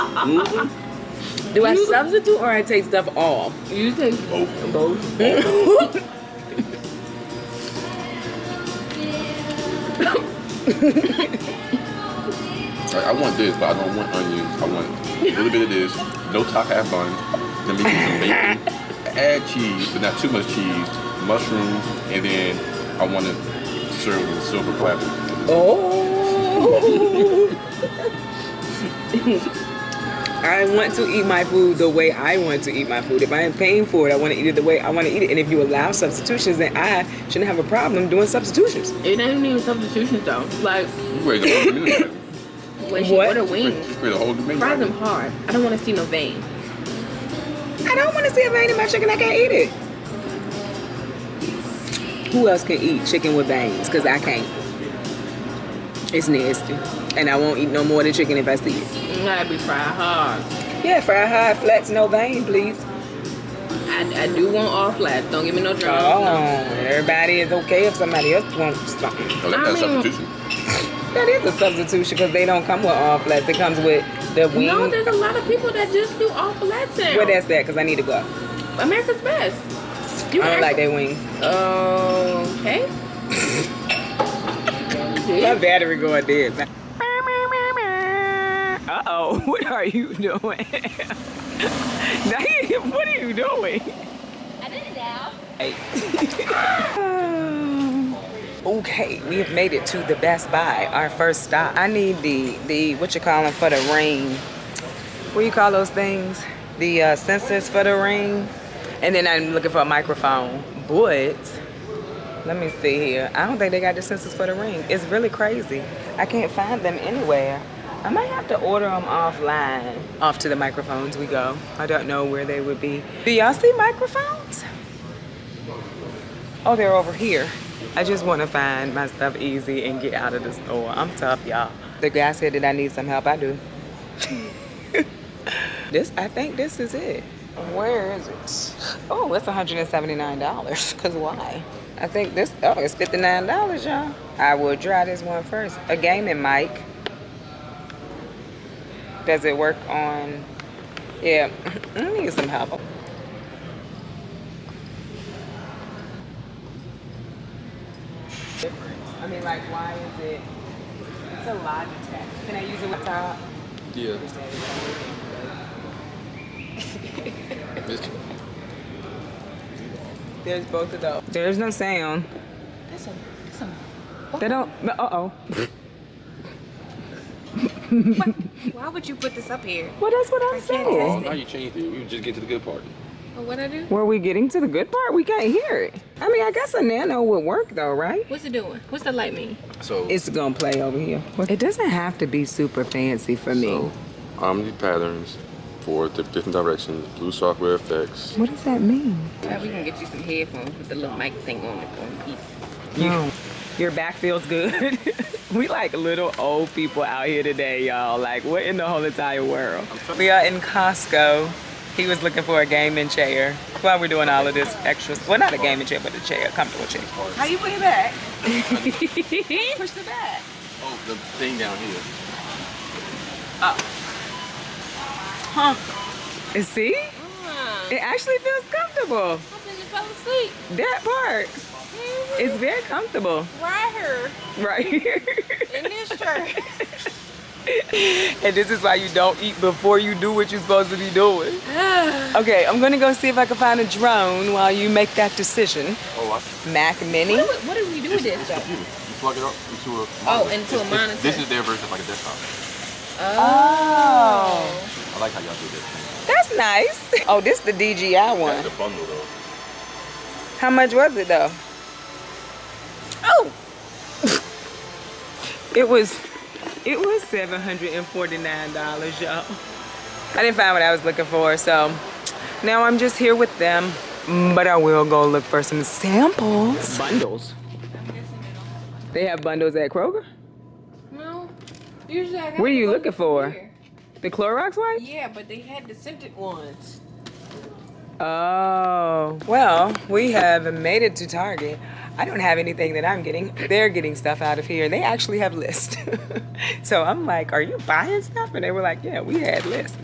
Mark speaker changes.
Speaker 1: Do I substitute or I take stuff off?
Speaker 2: You take
Speaker 3: Both.
Speaker 2: both.
Speaker 3: Like, I want this, but I don't want onions. I want a little bit of this. No top half bun. Then maybe some bacon. Add cheese, but not too much cheese. Mushrooms, and then I want to serve with a silver platter.
Speaker 1: Oh. I want to eat my food the way I want to eat my food. If I am paying for it, I want to eat it the way I want to eat it. And if you allow substitutions, then I shouldn't have a problem doing substitutions.
Speaker 2: It ain't even substitutions though. Like
Speaker 3: You create a whole new menu.
Speaker 2: when she
Speaker 1: What?
Speaker 2: ordered
Speaker 3: You
Speaker 2: wings,
Speaker 3: create a whole new menu.
Speaker 2: fry them hard. I don't want to see no vein.
Speaker 1: I don't want to see a vein in my chicken. I can't eat it. Who else can eat chicken with veins? Because I can't. It's nasty. And I won't eat no more than chicken if I see it.
Speaker 2: It gotta be fried hard.
Speaker 1: Yeah, fry high, flats, no vein, please.
Speaker 2: I, I do want all flat. Don't give me no dry.
Speaker 1: Oh,
Speaker 2: No.
Speaker 1: everybody is okay if somebody else wants something.
Speaker 3: Oh, that's
Speaker 2: I mean-
Speaker 3: not substitution.
Speaker 1: That is a substitution because they don't come with all flats. It comes with the wing.
Speaker 2: No, there's a lot of people that just do all flats now.
Speaker 1: Where that's that? Because I need to go.
Speaker 2: America's best. You
Speaker 1: I don't
Speaker 2: act-
Speaker 1: like their wings.
Speaker 2: Okay.
Speaker 1: My
Speaker 2: Yeah.
Speaker 1: battery going dead. Uh oh, what are you doing? Diane, what are you doing?
Speaker 4: I did it now.
Speaker 1: okay, we have made it to the Best Buy, our first stop. I need the the what you calling for the rain. What you call those things? The uh, sensors for the rain, and then I'm looking for a microphone. But let me see here. I don't think they got the sensors for the ring. It's really crazy. I can't find them anywhere. I might have to order them offline. Off to the microphones we go. I don't know where they would be. Do y'all see microphones? Oh, they're over here. I just want to find my stuff easy and get out of the store. I'm tough, y'all. The guy said that I need some help. I do. this, I think this is it. Where is it? Oh, it's $179. Because why? I think this, oh, it's $59, y'all. I will try this one first. A gaming mic. Does it work on, yeah, I need some help. I mean, like, why is it? It's a Logitech. Can I use it with top?
Speaker 3: Yeah.
Speaker 1: There's both of those. There's no sound.
Speaker 4: That's a, that's a,
Speaker 1: They don't. Uh oh.
Speaker 4: why would you put this up here?
Speaker 1: Well, that's what I'm
Speaker 4: I can't test
Speaker 3: Oh,
Speaker 1: saying.
Speaker 3: now you changed it. You just get to the good part.
Speaker 2: Oh, What I do?
Speaker 1: Were we getting to the good part? We can't hear it. I mean, I guess a nano would work though, right?
Speaker 2: What's it doing? What's the light mean?
Speaker 3: So,
Speaker 1: It's gonna play over here. It doesn't have to be super fancy for me.
Speaker 3: so Omni patterns for the different directions, blue software effects.
Speaker 1: what does that mean?
Speaker 2: we can get you some headphones with the little mic thing on it on each.
Speaker 1: You, your back feels good. we like little old people out here today, y'all. Like, what in the whole entire world? We are in Costco. He was looking for a gaming chair. While we're doing all of this extra, well, not a gaming chair, but a chair, a comfortable chair.
Speaker 4: How you put it back? Push the back.
Speaker 3: Oh, the thing down here.
Speaker 1: See, it actually feels comfortable.
Speaker 4: Ah, I think you fell asleep.
Speaker 1: That part, it's very comfortable
Speaker 4: Right here
Speaker 1: right here.
Speaker 4: in this shirt.
Speaker 1: and this is why you don't eat before you do what you're supposed to be doing. okay, I'm gonna go see if I can find a drone while you make that decision.
Speaker 3: Oh, I see.
Speaker 1: Mac Mini.
Speaker 2: What, what do we do with this though?
Speaker 3: You plug it up into a.
Speaker 2: Oh, into a monitor.
Speaker 3: This is their version of like a desktop.
Speaker 1: Oh,
Speaker 3: I like how y'all do this.
Speaker 1: that's nice. Oh, this the DJI
Speaker 3: That's
Speaker 1: one.
Speaker 3: the bundle though.
Speaker 1: How much was it though? Oh, it was, it was seven hundred and forty nine dollars, y'all. I didn't find what I was looking for, so now I'm just here with them. Mm, But I will go look for some samples. Bundles. They have bundles at Kroger.
Speaker 2: No. Usually I got
Speaker 1: What are you
Speaker 2: the one
Speaker 1: looking for?
Speaker 2: here.
Speaker 1: The Clorox wipes.
Speaker 2: Yeah, but they had the scented ones.
Speaker 1: Oh. Well, we have made it to Target. I don't have anything that I'm getting. They're getting stuff out of here. They actually have lists. so I'm like, are you buying stuff? And they were like, yeah, we had lists.